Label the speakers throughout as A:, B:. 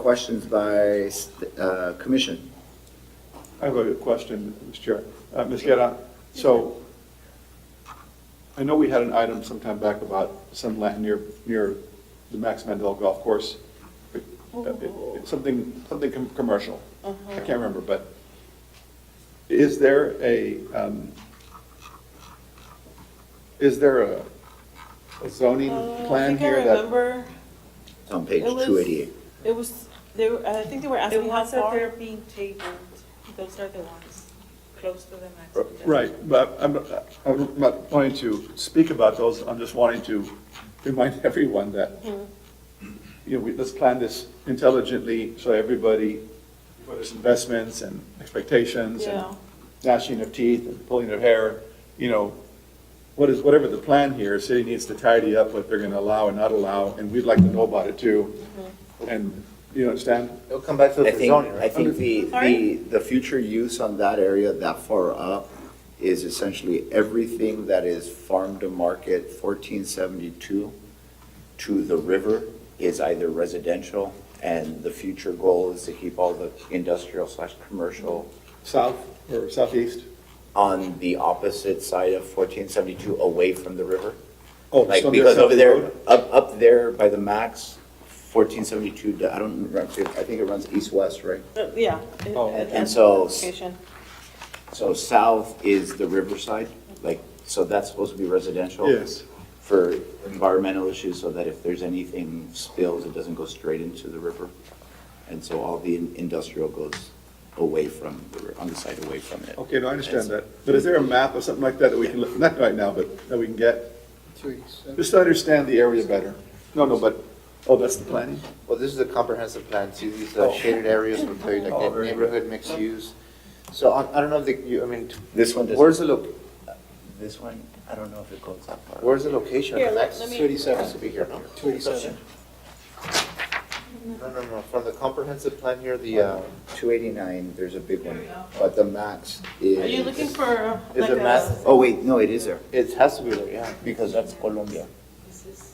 A: Questions by uh, commission?
B: I have a question, Mr. Chair. Uh, Ms. Guerra, so I know we had an item sometime back about some land near, near the Max Mandel Golf Course, but uh, it- it's something, something com- commercial.
C: Uh-huh.
B: I can't remember, but is there a, um, is there a a zoning
C: Uh, I
B: plan
C: think I
B: here that?
C: remember,
A: It's on page
C: It was-
A: 288.
C: it was, they were, I think they were
D: The
C: asking how
D: ones that they're
C: far.
D: being tabled, those are the ones close to the max.
B: Right, but I'm, I'm not wanting to speak about those, I'm just wanting to remind everyone that you know, we, let's plan this intelligently, so everybody, for there's investments and expectations
C: Yeah.
B: and gnashing of teeth and pulling of hair, you know, what is, whatever the plan here, city needs to tidy up what they're gonna allow and not allow, and we'd like to know about it too. And, you understand?
E: It'll come back to
A: I
E: the
A: think,
E: zoning,
A: I
E: right?
A: think the, the,
C: Sorry?
A: the future use on that area that far up is essentially everything that is farm to market fourteen seventy-two to the river is either residential, and the future goal is to keep all the industrial slash commercial
B: South or southeast?
A: on the opposite side of fourteen seventy-two away from the river.
B: Oh,
A: Like,
B: so there's
A: because over
B: South
A: there,
B: Road?
A: up, up there by the max, fourteen seventy-two, I don't, remember, I think it runs east-west, right?
C: Uh, Yeah. it-
B: Oh.
C: it-
B: And-
A: and so-
C: Location.
A: So south is the riverside, like, so that's supposed to be residential?
B: Yes.
A: For environmental issues, so that if there's anything spills, it doesn't go straight into the river. And so all the in- industrial goes away from, the ri- on the side away from it.
B: Okay, no, I understand that, but is there a map or something like that that we can, look- not right now, but that we can get? Just to understand the area better. No, no, but, oh, that's the planning?
E: Well, this is a comprehensive plan, see these
A: Oh.
E: uh, shaded areas with very, like
B: Oh,
E: that
B: very good.
E: neighborhood mixed use. So I, I don't know if the, you, I mean,
A: This one doesn't-
E: Where's the loc,
A: This one, I don't know if it goes that far.
E: where's the location?
C: Here,
E: of the
C: let-
E: next-
C: let me-
E: Has to be here, no?
F: Two eighty-seven.
E: No, no, no, from the comprehensive plan here, the, uh,
A: Two eighty-nine, there's a big one, but the max is.
C: Are you looking for uh,
E: Is
C: like
E: it
C: a,
E: mass-
A: Oh, wait, no, it is there,
E: it has to be there, yeah.
A: because that's Colombia,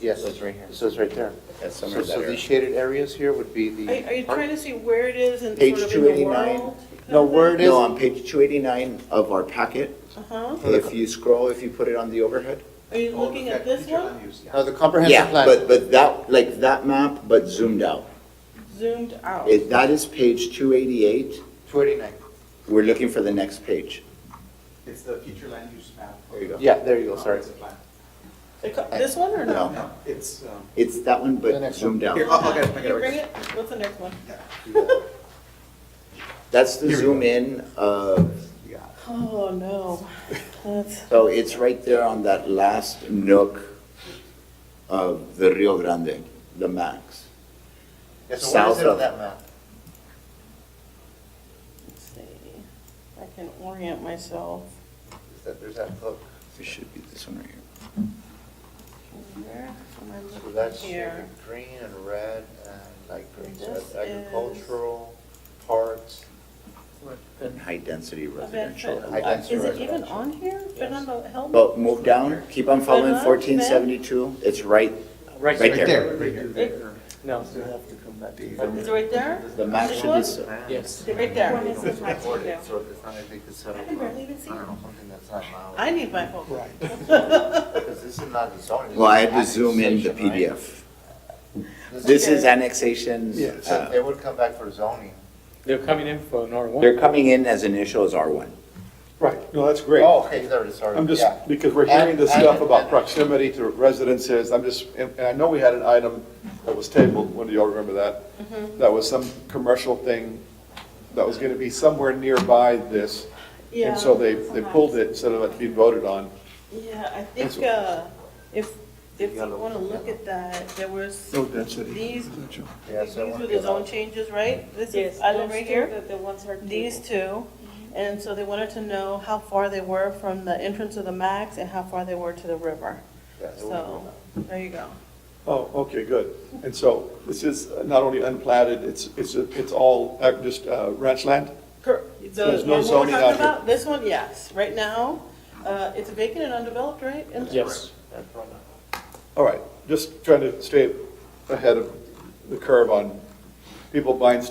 E: Yes,
A: So it's right here.
E: so it's right there.
A: that's
E: So,
A: somewhere
E: so
A: that
E: the
A: area.
E: shaded areas here would be the.
C: are are you trying to see where it is and
A: Page
C: sort of in the
A: 289.
C: world?
E: No, where it is.
A: No, on page two eighty-nine of our packet,
C: Uh-huh.
A: if you scroll, if you put it on the overhead.
C: Are you looking at this one,
E: No, the comprehensive plan.
A: But, but that, like that map, but zoomed out.
C: zoomed out?
A: It, that is page two eighty-eight,
E: Two eighty-nine.
A: we're looking for the next page.
G: It's the future land use map.
A: There you go.
E: Yeah, there you go, sorry.
G: Comprehensive plan.
C: It co- This one or no?
A: No,
G: No, it's, um,
A: it's that one,
E: The
A: but
E: next
A: zoomed
G: here,
A: out.
G: I'll, I'll get it, I'll
C: Can
G: get
C: you
G: it.
C: bring it? What's the next one?
A: That's the
B: Here we
A: zoom in, uh,
C: Oh, no. That's,
A: so it's right there on that last nook of the Rio Grande, the max.
E: Yeah, so where is
A: South
E: it on
A: of-
E: that map?
C: let's see, if I can orient myself.
E: Is that, there's that hook.
A: It should be this one right here.
C: Where am I
E: So
C: looking
E: that's
C: here?
E: like green and red and like green, so
C: This
E: that's agricultural, parks.
A: And high density residential.
C: Event-
E: I got
C: Is it
E: residential.
C: even on here? Fernando, help me.
A: But move down, keep on following
C: Uh-huh,
A: fourteen seventy-two, it's right, right
F: Right
A: there.
G: Right here.
F: No, so you have to come back.
C: Is it right there?
A: The max
C: This
A: should
C: one?
A: be, so-
F: Yes.
C: Right there.
D: This is max
E: Or
D: window.
E: it's- or it's not, I think it's, uh,
C: I can barely even see.
E: I don't know, something that's not allowed.
C: I need my phone.
F: Right.
E: Because this is not the zoning.
A: well, I had to
E: this is
A: zoom in the
E: annexation, right?
A: PDF. This is
C: Okay.
A: annexation.
B: Yeah, so
E: So
A: uh,
E: They would come back for zoning.
F: They're coming in for an R one.
A: They're coming in as initial as R1.
B: Right, no, that's great.
E: Oh, okay, there it is, sorry.
B: I'm just,
E: Yeah.
B: because we're hearing this
E: And-
B: stuff
E: and-
B: about
E: and-
B: proximity to residences, I'm just, and and I know we had an item that was tabled, when do y'all remember
C: Mm-hmm.
B: that? That was some commercial thing that was gonna be somewhere nearby this.
C: Yeah.
B: And so they, they pulled it instead of it being voted on.
C: Yeah, I think, uh, if, if you wanna look at that, there was,
B: density.
C: these,
E: Yeah,
C: these
E: so it
C: were
E: won't
C: the
E: be
C: zone
E: allowed.
C: changes, right? This
D: Yes,
C: is island right here,
D: The ones are.
C: these two. And so they wanted to know how far they were from the entrance of the max and how far they were to the river.
E: Yeah, it won't be
C: So,
E: allowed.
C: there you go.
B: Oh, okay, good. And so this is not only unplatted, it's, it's, it's all uh, just uh, ranch land?
C: Cor-
B: There's
C: The,
B: no
C: what we're
B: zoning
C: talking
B: out here.
C: about, this one, yes, right now, uh, it's vacant and undeveloped, right? And-
F: Yes.
B: All right, just trying to stay ahead of the curve on people buying